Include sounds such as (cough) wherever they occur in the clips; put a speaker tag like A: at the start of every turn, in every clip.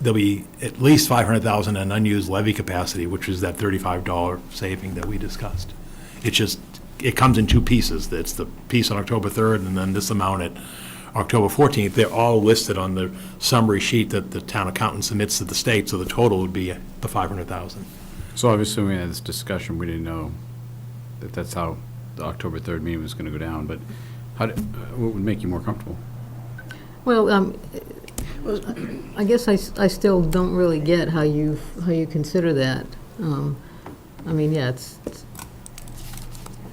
A: there'll be at least 500,000 in unused levy capacity, which is that $35 saving that we discussed. It's just, it comes in two pieces. It's the piece on October 3rd and then this amount at October 14th. They're all listed on the summary sheet that the town accountant submits to the state, so the total would be the 500,000.
B: So obviously, when we had this discussion, we didn't know that that's how the October 3rd meeting was going to go down, but how, did- what would make you more comfortable?
C: Well, um, I guess I, s- I still don't really get how you, how you consider that. Um, I mean, yeah, it's, it's-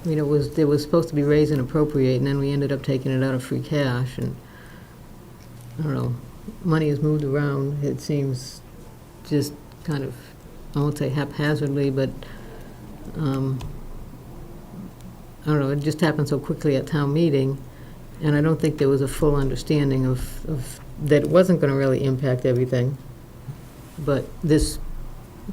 C: I mean, it was, it was supposed to be raised and appropriate, and then we ended up taking it out of free cash, and, I don't know, money is moved around, it seems just kind of, I won't say haphazardly, but, um, I don't know, it just happened so quickly at town meeting. And I don't think there was a full understanding of, of, that it wasn't gonna really impact everything. But this,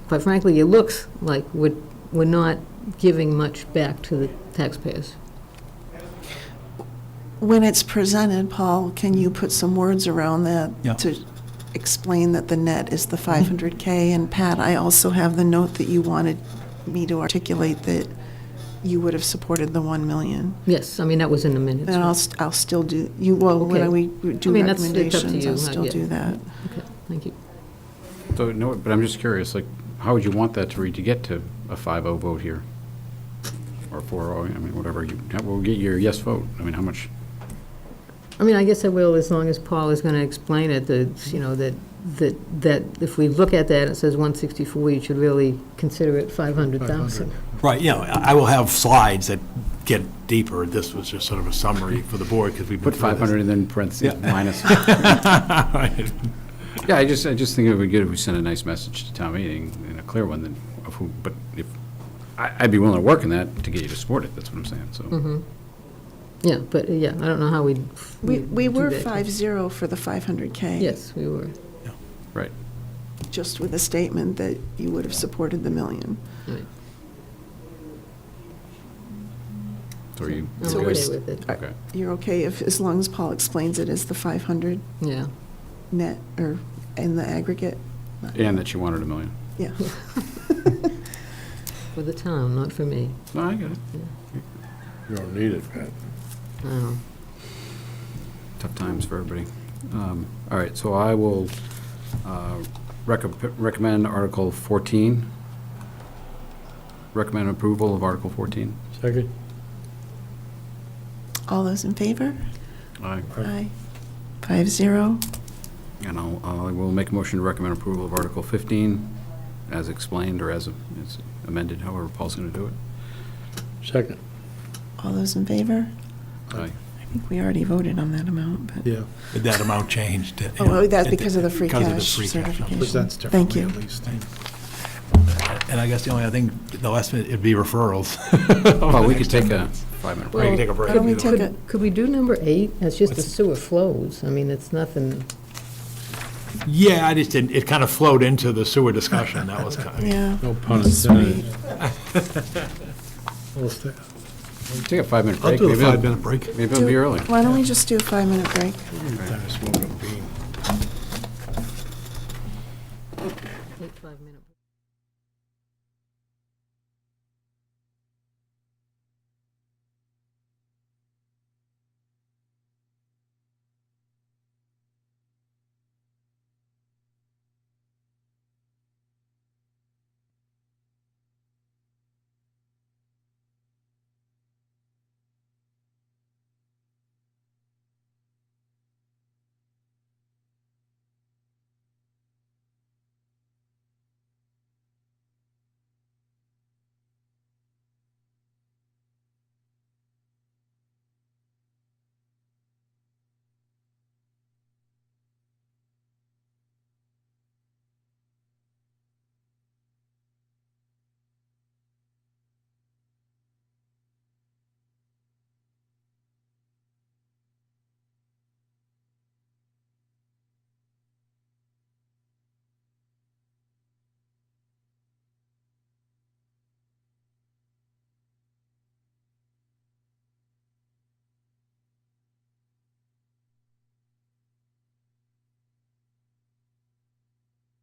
C: quite frankly, it looks like we're, we're not giving much back to the taxpayers.
D: When it's presented, Paul, can you put some words around that?
A: Yeah.
D: To explain that the net is the 500K, and Pat, I also have the note that you wanted me to articulate that you would have supported the 1 million.
C: Yes, I mean, that was in the minutes.
D: And I'll, st- I'll still do, you, well,
C: Okay.
D: when we
C: I
D: do
C: mean, that's- it's up to
D: recommendations,
C: you,
D: I'll
C: huh?
D: still
C: Yeah.
D: do that.
C: Okay, thank you.
B: So, no, but I'm just curious, like, how would you want that to read to get to a 5-0 vote here? Or 4-0, I mean, whatever, you, how- we'll get your yes vote. I mean, how much,
C: I mean, I guess I will, as long as Paul is gonna explain it, that, you know, that, that, that if we look at that, it says one sixty-four, you should really consider it five hundred thousand.
A: Right, yeah, I I will have slides that get deeper. This was just sort of a summary for the board, because we've been
B: put
A: through this.
B: 500 and then parentheses minus?
A: (laughs) Right.
B: Yeah, I just, I just think it would be good if we sent a nice message to town meeting, and a clear one, then, of who, but if, I, I'd be willing to work on that to get you to support it, that's what I'm saying, so.
C: Yeah, but, uh, yeah, I don't know how we'd.
D: We, we
C: do
D: were
C: that.
D: 5-0 for the 500K.
C: Yes, we were.
B: Right.
D: Just with a statement that you would have supported the million.
C: Right.
B: So are you?
C: I'm
D: So
C: okay
D: we're s-
C: with it,
B: Okay.
D: You're okay if, as long as Paul explains it as the 500
C: yeah.
D: net, or in the aggregate?
B: And that you wanted a million.
D: Yeah.
C: For the town, not for me.
B: No, I get it.
E: You don't need it, Pat.
C: Oh,
B: Tough times for everybody. Um, All right, so I will uh, recom- recommend Article 14. Recommend approval of Article 14.
E: Second?
D: All those in favor?
B: Aye.
D: Aye. Five zero.
B: And I'll, I will make a motion to recommend approval of Article 15 as explained or as as amended, however Paul's going to do it.
E: Second.
D: All those in favor?
B: Aye.
D: I think we already voted on that amount, but.
E: Yeah.
A: Did that amount change? to-
D: Oh, well, that's
A: it-
D: because of the free
A: because of the
D: cash
A: free cash number.
D: certification.
E: Presents
D: Thank
E: differently
D: you.
E: at least.
A: And I guess the only, I think, the last, minute it'd be referrals.
E: Oh,
B: Well, we could take a five-minute
A: We can
B: break.
A: take a break.
D: Can we
A: either way.
D: take a,
C: Could we do number eight? That's just the
A: What's-
C: sewer flows. I mean, it's nothing,
A: Yeah, I just didn't, it kind of flowed into the sewer discussion, that was kind of,
D: yeah.
E: No pun
D: Sweet.
E: intended. We'll stay-
B: Take a five-minute
E: I'll
B: break.
E: do the
B: Maybe it'll-
E: five-minute break.
B: Maybe it'll be early.
D: Why don't we just do a five-minute break?
E: Time to smoke a bean.
C: eight, five minutes.